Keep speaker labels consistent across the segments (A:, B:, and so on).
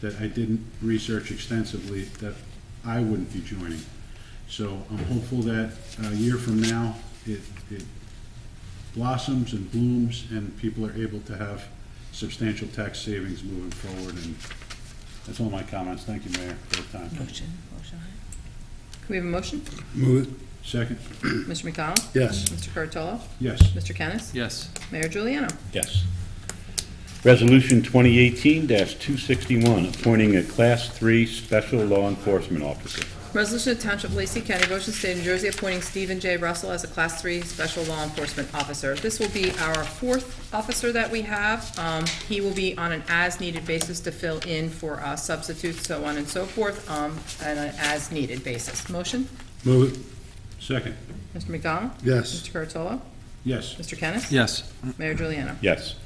A: that I didn't research extensively that I wouldn't be joining. So I'm hopeful that a year from now, it, it blossoms and blooms and people are able to have substantial tax savings moving forward. And that's all my comments. Thank you, Mayor, for the time.
B: Motion, motion. Can we have a motion?
C: Move it.
A: Second,
B: Mr. McDonald?
C: Yes.
B: Mr. Curatolo?
A: yes.
B: Mr. Kennis?
D: Yes.
B: Mayor Juliano?
E: Yes. Resolution 2018-261, appointing a Class 3 Special Law Enforcement Officer.
B: Resolution of Township of Lacey County, Ocean State, New Jersey, appointing Stephen J. Russell as a Class 3 Special Law Enforcement Officer. This will be our fourth officer that we have. Um, He will be on an as-needed basis to fill in for uh, substitutes, so on and so forth, um, on an as-needed basis. Motion?
C: Move it.
A: Second,
B: Mr. McDonald?
C: Yes.
B: Mr. Curatolo?
A: yes.
B: Mr. Kennis?
D: Yes.
B: Mayor Juliano?
E: Yes.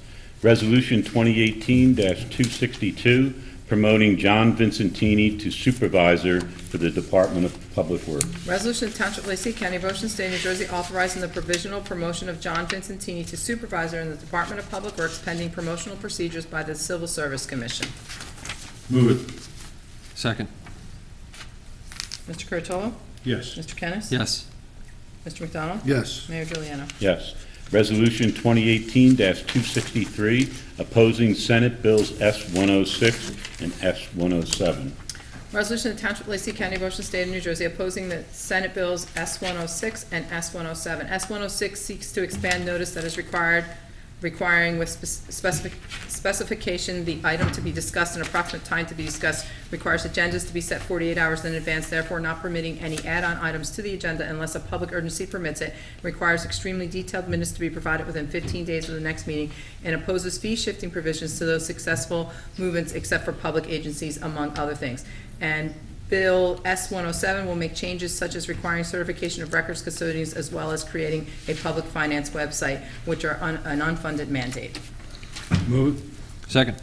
E: Resolution 2018-262, promoting John Vincentini to Supervisor for the Department of Public Works.
B: Resolution of Township of Lacey County, Ocean State, New Jersey, authorizing the provisional promotion of John Vincentini to supervisor in the Department of Public Works pending promotional procedures by the Civil Service Commission.
A: Move it.
D: Second.
B: Mr. Curatolo?
A: Yes.
B: Mr. Kennis?
D: Yes.
B: Mr. McDonald?
C: Yes.
B: Mayor Juliano?
E: Yes. Resolution 2018-263, opposing Senate Bills S-106 and S-107.
B: Resolution of Township of Lacey County, Ocean State of New Jersey, opposing the Senate Bills S-106 and S-107. S-106 seeks to expand notice that is required, requiring with spec- specific- specification the item to be discussed and approximate time to be discussed, requires agendas to be set 48 hours in advance, therefore not permitting any add-on items to the agenda unless a public urgency permits it, requires extremely detailed minutes to be provided within 15 days of the next meeting, and opposes fee-shifting provisions to those successful movements except for public agencies, among other things. And Bill S-107 will make changes such as requiring certification of records custodians as well as creating a public finance website, which are un- an unfunded mandate.
C: Move it.
D: Second.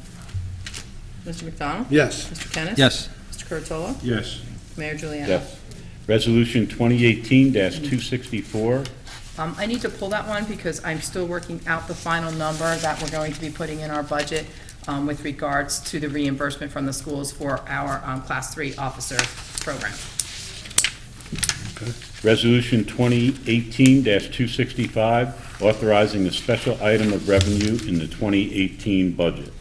B: Mr. McDonald?
C: Yes.
B: Mr. Kennis?
D: Yes.
B: Mr. Curatolo?
A: Yes.
B: Mayor Juliana?
E: Yes. Resolution 2018-264,
B: Um, I need to pull that one because I'm still working out the final number that we're going to be putting in our budget um, with regards to the reimbursement from the schools for our um, Class 3 officer program.
E: Resolution 2018-265, authorizing a special item of revenue in the 2018 budget.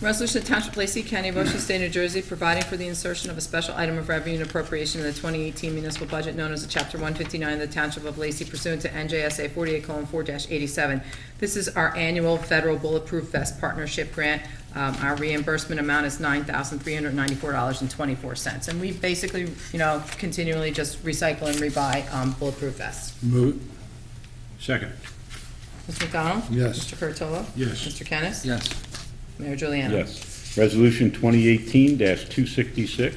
B: Resolution of Township of Lacey County, Ocean State, New Jersey, providing for the insertion of a special item of revenue and appropriation in the 2018 municipal budget known as the Chapter 159 of the Township of Lacey pursuant to NJSA 48:4-87. This is our annual federal bulletproof vest partnership grant. Um, Our reimbursement amount is $9,394.24. And we basically, you know, continually just recycle and rebuy um, bulletproof vests.
C: Move it.
A: Second,
B: Mr. McDonald?
C: Yes.
B: Mr. Curatolo?
A: Yes.
B: Mr. Kennis?
D: Yes.
B: Mayor Juliana?
E: Yes. Resolution 2018-266,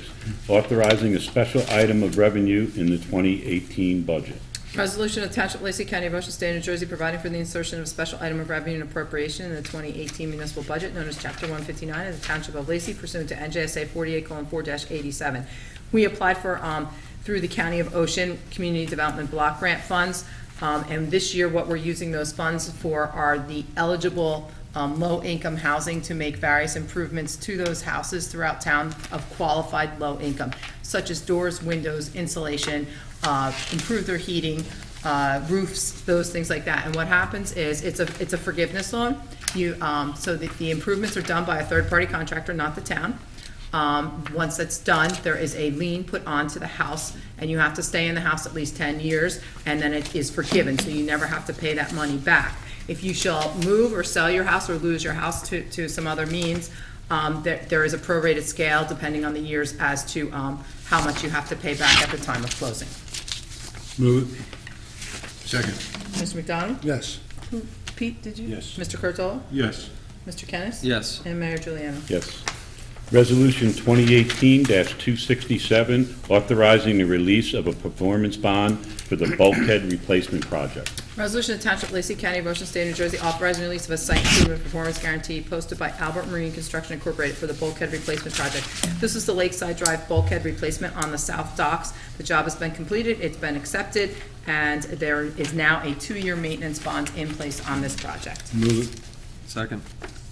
E: authorizing a special item of revenue in the 2018 budget.
B: Resolution of Township of Lacey County, Ocean State, New Jersey, providing for the insertion of a special item of revenue and appropriation in the 2018 municipal budget known as Chapter 159 of the Township of Lacey pursuant to NJSA 48:4-87. We applied for, um, through the County of Ocean Community Development Block Grant Funds, um, and this year, what we're using those funds for are the eligible um, low-income housing to make various improvements to those houses throughout town of qualified low income, such as doors, windows, insulation, uh, improve their heating, uh, roofs, those things like that. And what happens is, it's a, it's a forgiveness loan. You, um, so the, the improvements are done by a third-party contractor, not the town. Um, Once that's done, there is a lien put onto the house, and you have to stay in the house at least 10 years, and then it is forgiven, so you never have to pay that money back. If you shall move or sell your house or lose your house to, to some other means, um, there, there is a prorated scale depending on the years as to um, how much you have to pay back at the time of closing.
C: Move it. Second.
B: Mr. McDonald?
C: Yes.
B: Pete, did you?
A: Yes.
B: Mr. Curatolo?
A: yes.
B: Mr. Kennis?
D: Yes.
B: And Mayor Juliana?
E: Yes. Resolution 2018-267, authorizing the release of a performance bond for the bulkhead replacement project.
B: Resolution of Township of Lacey County, Ocean State, New Jersey, authorizing release of a site improvement performance guarantee posted by Albert Marine Construction Incorporated for the bulkhead replacement project. This is the Lakeside Drive bulkhead replacement on the south docks. The job has been completed, it's been accepted, and there is now a two-year maintenance bond in place on this project.
C: Move it.
D: Second.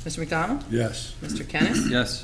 B: Mr. McDonald?
C: Yes.
B: Mr. Kennis?
D: Yes.